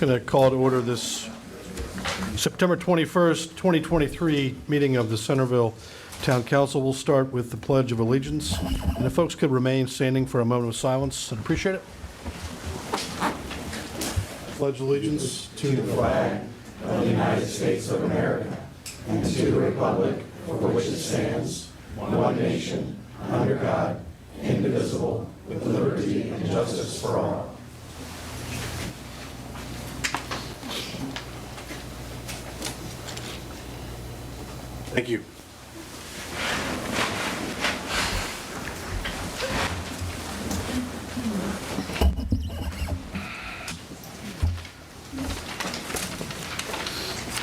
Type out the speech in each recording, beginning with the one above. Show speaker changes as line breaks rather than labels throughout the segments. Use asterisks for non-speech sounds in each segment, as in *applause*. Going to call to order this September 21st, 2023 meeting of the Centerville Town Council. We'll start with the Pledge of Allegiance. And if folks could remain standing for a moment of silence, I'd appreciate it. Pledge allegiance to the flag Thank you.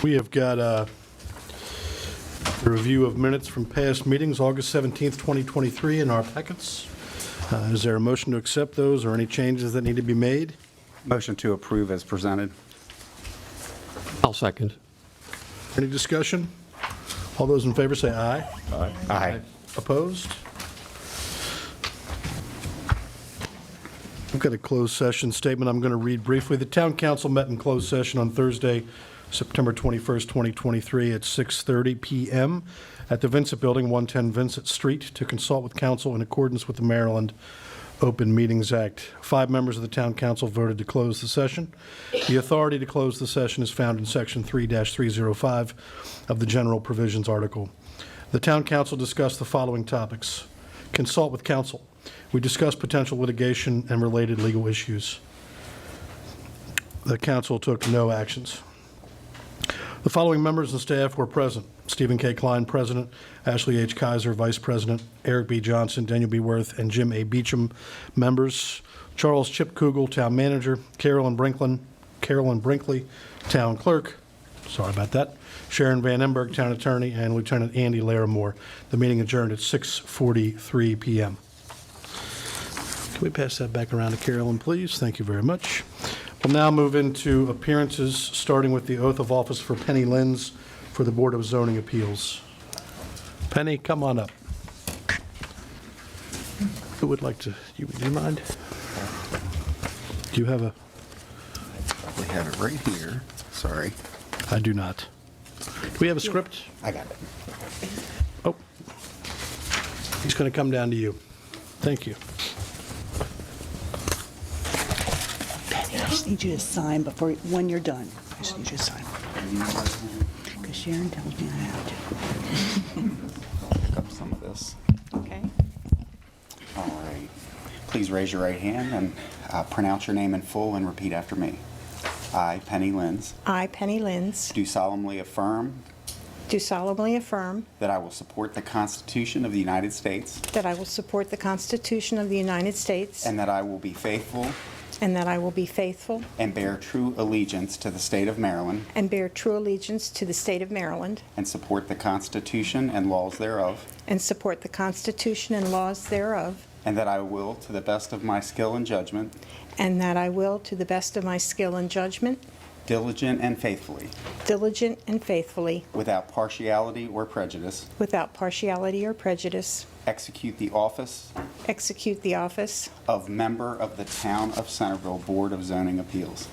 We have got uh, a review of minutes from past meetings, August 17th, 2023, in our packets. Uh, Is there a motion to accept those or any changes that need to be made?
Motion to approve as presented.
I'll second.
Any discussion? All those in favor say aye.
Aye.
Opposed? I've got a closed session statement I'm going to read briefly. The town council met in closed session on Thursday, September 21st, 2023, at 6:30 PM at the Vincent Building, 110 Vincent Street, to consult with council in accordance with the Maryland Open Meetings Act. Five members of the town council voted to close the session. The authority to close the session is found in Section 3-305 of the General Provisions Article. The town council discussed the following topics. Consult with council. We discussed potential litigation and related legal issues. The council took no actions. The following members and staff were present. Stephen K. Klein, President, Ashley H. Kaiser, Vice President, Eric B. Johnson, Daniel B. Worth, and Jim A. Beecham, members. Charles Chip Kugel, Town Manager, Carolyn Brinklin, Carolyn Brinkley, Town Clerk, sorry about that, Sharon Van Emberg, Town Attorney, and Lieutenant Andy Larimore. The meeting adjourned at 6:43 PM. Can we pass that back around to Carolyn, please? Thank you very much. We'll now move into appearances, starting with the oath of office for Penny Lenz for the Board of Zoning Appeals. Penny, come on up. Who would like to, you- do you mind? Do you have a,
We have it right here. Sorry.
I do not. Do we have a script?
I got it.
Oh, he's going to come down to you. Thank you.
I just need you to sign before, when you're done. I just need you to sign. Because Sharon tells me I have to.
Pick up some of this.
Okay.
All right. Please raise your right hand and uh, pronounce your name in full and repeat after me. I, Penny Lenz,
I, Penny Lenz,
do solemnly affirm
do solemnly affirm
that I will support the Constitution of the United States
that I will support the Constitution of the United States
and that I will be faithful
and that I will be faithful
and bear true allegiance to the state of Maryland
and bear true allegiance to the state of Maryland
and support the Constitution and laws thereof,
and support the Constitution and laws thereof,
and that I will, to the best of my skill and judgment,
and that I will, to the best of my skill and judgment,
diligent and faithfully,
diligent and faithfully,
without partiality or prejudice,
without partiality or prejudice,
execute the office
execute the office
of member of the Town of Centerville Board of Zoning Appeals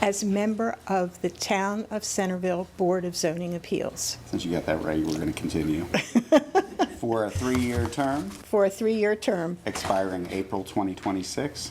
as member of the Town of Centerville Board of Zoning Appeals
since you got that right, we're going to continue. For a three-year term
for a three-year term e-,
expiring April 2026,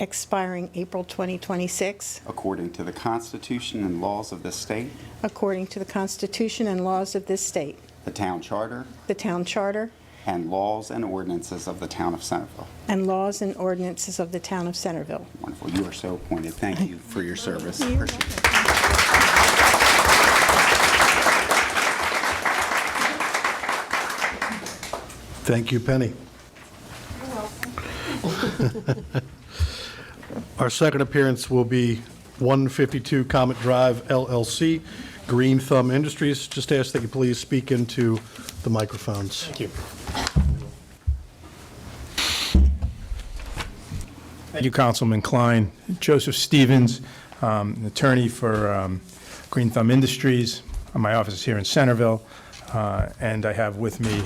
expiring April 2026,
according to the Constitution and laws of this state,
according to the Constitution and laws of this state,
the Town Charter,
the Town Charter,
and laws and ordinances of the Town of Centerville.
and laws and ordinances of the Town of Centerville.
Wonderful. You are so appointed. Thank you for your service. Appreciate it.
Thank you, Penny. *laughs* Our second appearance will be 152 Comet Drive LLC, Green Thumb Industries. Just ask that you please speak into the microphones. Thank you.
Thank you, Councilman Klein. Joseph Stevens, um, an attorney for um, Green Thumb Industries. My office is here in Centerville, uh, and I have with me